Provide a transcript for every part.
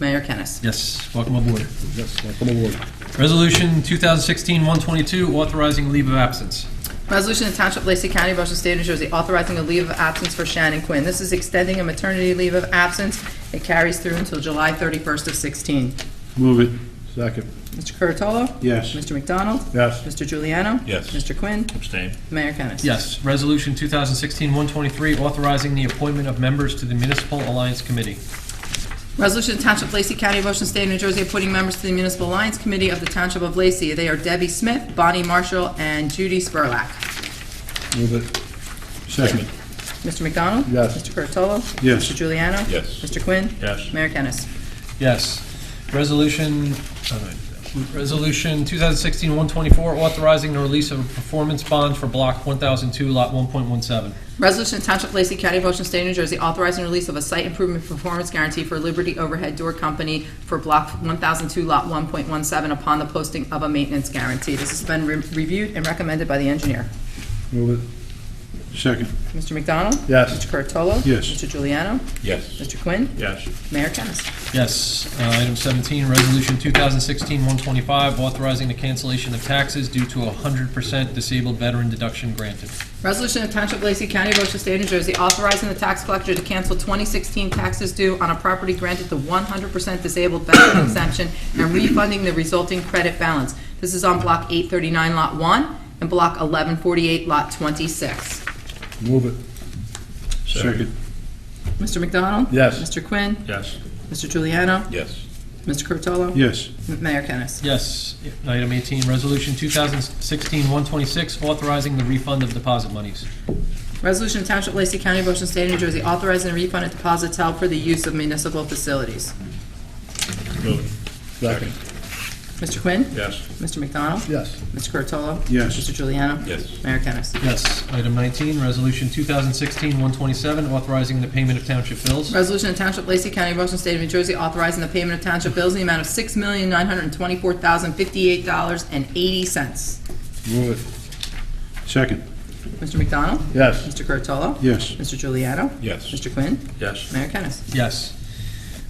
Mayor Kennis. Yes, welcome aboard. Yes, welcome aboard. Resolution 2016-122, authorizing leave of absence. Resolution of Township of Lacey County, Ocean State, New Jersey, authorizing a leave of absence for Shannon Quinn. This is extending a maternity leave of absence. It carries through until July 31st of 16. Move it. Second. Mr. Curatolo? Yes. Mr. McDonald? Yes. Mr. Juliano? Yes. Mr. Quinn? Abstain. Mayor Kennis. Yes, resolution 2016-123, authorizing the appointment of members to the Municipal Alliance Committee. Resolution of Township of Lacey County, Ocean State, New Jersey, appointing members to the Municipal Alliance Committee of the Township of Lacey. They are Debbie Smith, Bonnie Marshall, and Judy Spurlock. Move it. Second. Mr. McDonald? Yes. Mr. Curatolo? Yes. Mr. Juliano? Yes. Mr. Quinn? Yes. Mayor Kennis. Yes, resolution, oh, no, resolution 2016-124, authorizing the release of a performance bond for Block 1002, Lot 1.17. Resolution to Township of Lacey County, Ocean State, New Jersey, authorizing release of a site improvement performance guarantee for Liberty Overhead Door Company for Block 1002, Lot 1.17, upon the posting of a maintenance guarantee. This has been re- reviewed and recommended by the engineer. Move it. Second. Mr. McDonald? Yes. Mr. Curatolo? Yes. Mr. Juliano? Yes. Mr. Quinn? Yes. Mayor Kennas. Yes, uh, item 17, resolution 2016-125, authorizing the cancellation of taxes due to a 100% disabled veteran deduction granted. Resolution of Township of Lacey County, Ocean State, New Jersey, authorizing the tax collector to cancel 2016 taxes due on a property granted the 100% disabled veteran exemption and refunding the resulting credit balance. This is on Block 839, Lot 1, and Block 1148, Lot 26. Move it. Second. Mr. McDonald? Yes. Mr. Quinn? Yes. Mr. Juliano? Yes. Mr. Curatolo? Yes. M- Mayor Kennas. Yes, item 18, resolution 2016-126, authorizing the refund of deposit monies. Resolution of Township of Lacey County, Ocean State, New Jersey, authorizing a refund of deposits held for the use of municipal facilities. Move it. Second. Mr. Quinn? Yes. Mr. McDonald? Yes. Mr. Curatolo? Yes. Mr. Juliano? Yes. Mayor Kennas. Yes, item 19, resolution 2016-127, authorizing the payment of township bills. Resolution of Township of Lacey County, Ocean State of New Jersey, authorizing the payment of township bills in the amount of six million nine hundred twenty-four thousand fifty-eight dollars and eighty cents. Move it. Second. Mr. McDonald? Yes. Mr. Curatolo? Yes. Mr. Juliano? Yes. Mr. Quinn? Yes. Mayor Kennas. Yes.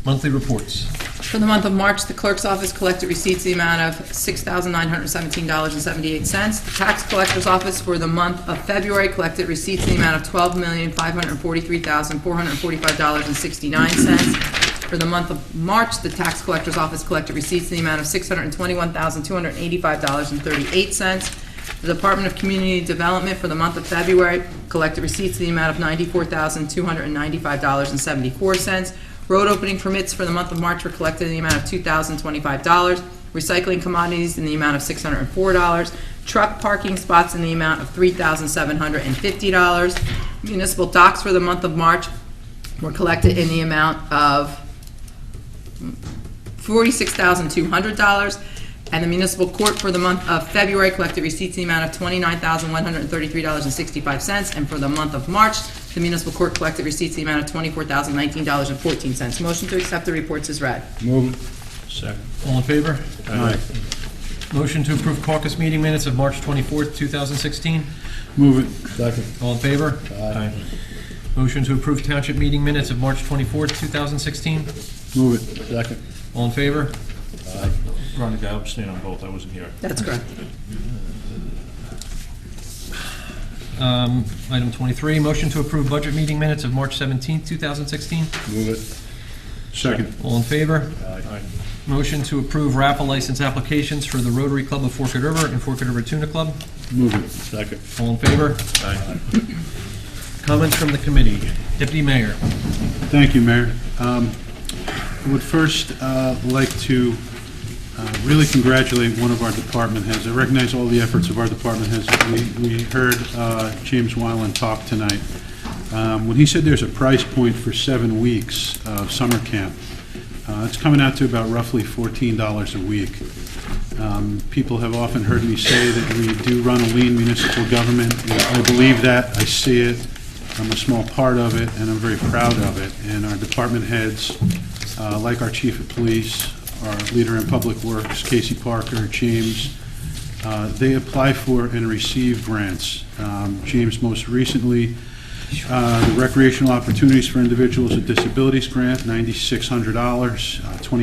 Monthly reports. For the month of March, the clerk's office collected receipts in the amount of $6,917.78. The tax collector's office for the month of February collected receipts in the amount of $12,543,445.69. For the month of March, the tax collector's office collected receipts in the amount of $621,285.38. The Department of Community Development for the month of February collected receipts in the amount of $94,295.74. Road opening permits for the month of March were collected in the amount of $2,025. Recycling commodities in the amount of $604. Truck parking spots in the amount of $3,750. Municipal docks for the month of March were collected in the amount of $46,200, and the municipal court for the month of February collected receipts in the amount of $29,133.65, and for the month of March, the municipal court collected receipts in the amount of $24,019.14. Motion to accept the reports is read. Move it. Second. All in favor? Aye. Motion to approve caucus meeting minutes of March 24th, 2016. Move it. Second. All in favor? Aye. Motion to approve township meeting minutes of March 24th, 2016. Move it. Second. All in favor? Veronica, I abstain on both. I wasn't here. That's correct. Um, Item 23, motion to approve budget meeting minutes of March 17th, 2016. Move it. Second. All in favor? Aye. Motion to approve raffle license applications for the Rotary Club of Forked River and Forked River Tuna Club. Move it. Second. All in favor? Aye. Comments from the committee? Deputy Mayor. Thank you, Mayor. Um, I would first uh, like to uh, really congratulate one of our department heads. I recognize all the efforts of our department heads. We- We heard uh, James Wyland talk tonight. Um, When he said there's a price point for seven weeks of summer camp, uh, it's coming out to about roughly $14 a week. Um, People have often heard me say that we do run a lean municipal government. I believe that, I see it, I'm a small part of it, and I'm very proud of it. And our department heads, uh, like our chief of police, our leader in public works, Casey Parker, James, uh, they apply for and receive grants. Um, James most recently, uh, the Recreational Opportunities for Individuals with Disabilities Grant, $9,600, uh,